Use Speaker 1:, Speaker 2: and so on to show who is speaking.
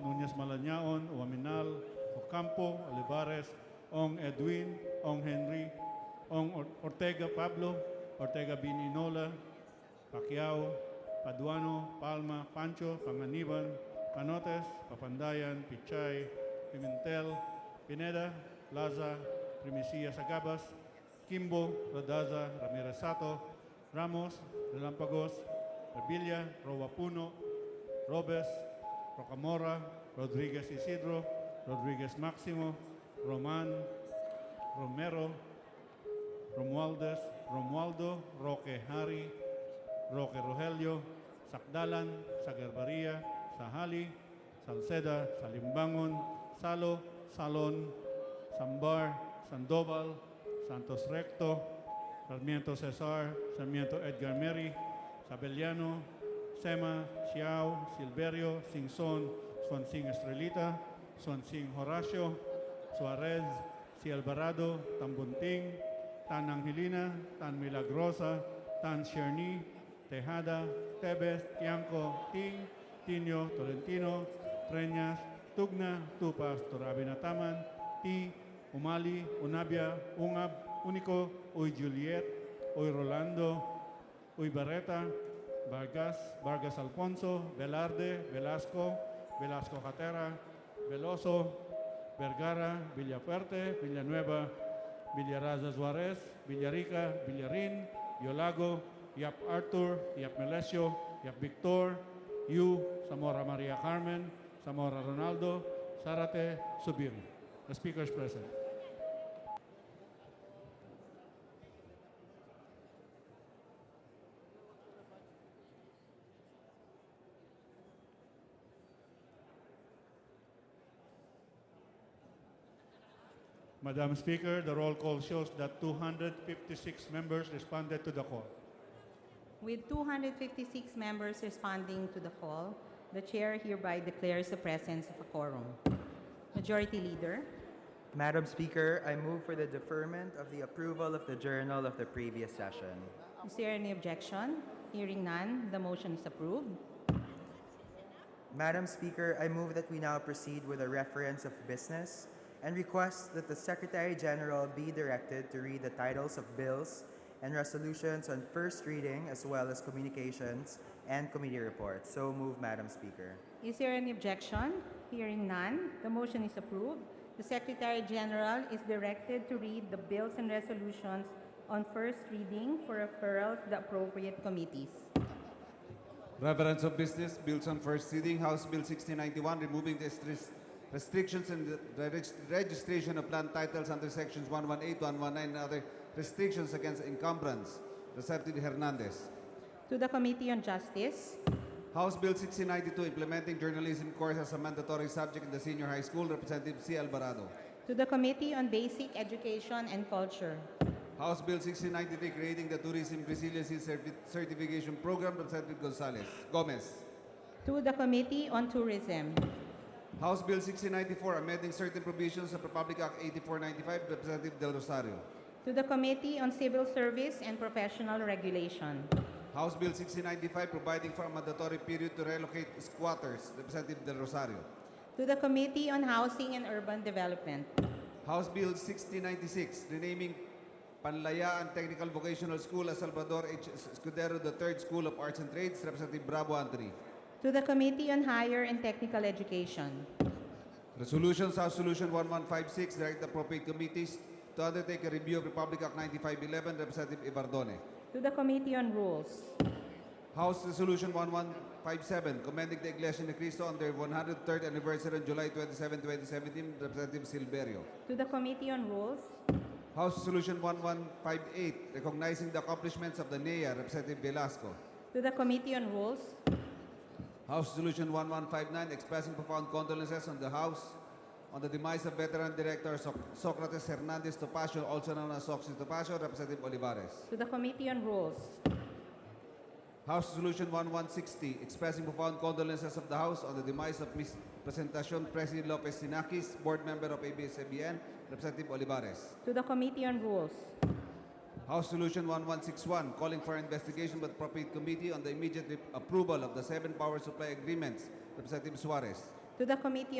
Speaker 1: Martínez Malañaon, Uaminal, Ocampo, Olivares, Ong Edwin, Ong Henry, Ong Or- Ortega Pablo, Ortega Bininola, Pacquiao, Paduano, Palma, Pancho, Panganiban, Panotes, Papandayan, Pichay, Pimentel, Pineda, Laza, Primicia Sagabas, Kimbo, Radaza, Ramirez Sato, Ramos, Relampagos, Revilla, Roa Puno, Robes, Rocamora, Rodriguez Isidro, Rodriguez Maximo, Roman, Romero, Romualdez, Romualdo, Roque Hari, Roque Rogelio, Sakdalan, Sagarbaria, Sahali, Salceda, Salimbangon, Salo, Salon, Sambar, Sandoval, Santos Recto, Sarmiento Cesar, Sarmiento Edgar Meri, Sabelliano, Sema, Chiao, Silverio, Singson, Swansing Estrelita, Swansing Horacio, Suarez, Si Alvarado, Tambunting, Tan Angelina, Tan Milagrosa, Tan Cherny, Tejada, Tebes, Tianco, Ting, Tinio, Tolentino, Treñas, Tugna, Tupas, Torabinataman, Ti, Umali, Unabia, Ungab, Único, Uy Juliet, Uy Rolando, Uy Barreta, Vargas, Vargas Alfonso, Velarde, Velasco, Velasco Jatera, Veloso, Vergara, Villafuerte, Villanueva, Villaraza Suárez, Villarica, Villarin, Yolago, Yap Arthur, Yap Melesio, Yap Victor, Yu, Zamora Maria Carmen, Zamora Ronaldo, Zarate, Subir. The speaker is present. Madam Speaker, the roll call shows that 256 members responded to the call.
Speaker 2: With 256 members responding to the call, the chair hereby declares the presence of a quorum. Majority Leader,
Speaker 3: Madam Speaker, I move for the deferment of the approval of the journal of the previous session.
Speaker 2: is there any objection? Hearing none, the motion is approved.
Speaker 3: Madam Speaker, I move that we now proceed with a reference of business and request that the Secretary General be directed to read the titles of bills and resolutions on first reading as well as communications and committee reports. So move, Madam Speaker.
Speaker 2: Is there any objection? Hearing none, the motion is approved. The Secretary General is directed to read the bills and resolutions on first reading for referral to the appropriate committees.
Speaker 4: Reference of Business Bills on First Reading, House Bill 1691, removing the stris- restrictions in the regis- registration of land titles under sections 118, 119, and other restrictions against encumbrance. Receptive Hernandez.
Speaker 2: To the Committee on Justice,
Speaker 4: House Bill 1692, implementing journalism course as a mandatory subject in the senior high school. Representative C. Alvarado.
Speaker 2: to the Committee on Basic Education and Culture,
Speaker 4: House Bill 1693, creating the tourism resiliency Certi- certification program. Representative Gonzalez Gomez.
Speaker 2: to the Committee on Tourism,
Speaker 4: House Bill 1694, amending certain provisions of Republic Act 8495, Representative Del Rosario.
Speaker 2: to the Committee on Civil Service and Professional Regulation,
Speaker 4: House Bill 1695, providing for a mandatory period to relocate squatters, Representative Del Rosario.
Speaker 2: to the Committee on Housing and Urban Development,
Speaker 4: House Bill 1696, renaming Panlayaan Technical Vocational School as Salvador H. Escudero III School of Arts and Trades, Representative Bravo Anthony.
Speaker 2: to the Committee on Higher and Technical Education,
Speaker 4: Resolutions, House Solution 1156, direct appropriate committees to undertake a review of Republic Act 9511, Representative Ibardone.
Speaker 2: to the Committee on Rules,
Speaker 4: House Resolution 1157, commending the Iglesia Ni Cristo on their 103rd anniversary on July 27, 2017, Representative Silverio.
Speaker 2: to the Committee on Rules,
Speaker 4: House Resolution 1158, recognizing the accomplishments of the NEA, Representative Velasco.
Speaker 2: to the Committee on Rules,
Speaker 4: House Resolution 1159, expressing profound condolences on the House on the demise of veteran director Soc- Socrates Hernandez Topacio, also known as Soxy Topacio, Representative Olivares.
Speaker 2: to the Committee on Rules,
Speaker 4: House Resolution 1160, expressing profound condolences of the House on the demise of Ms. Presentacion President Lopez Sinakis, board member of ABS-CBN, Representative Olivares.
Speaker 2: to the Committee on Rules,
Speaker 4: House Resolution 1161, calling for investigation by the appropriate committee on the immediate re- approval of the seven power supply agreements, Representative Suarez.
Speaker 2: to the Committee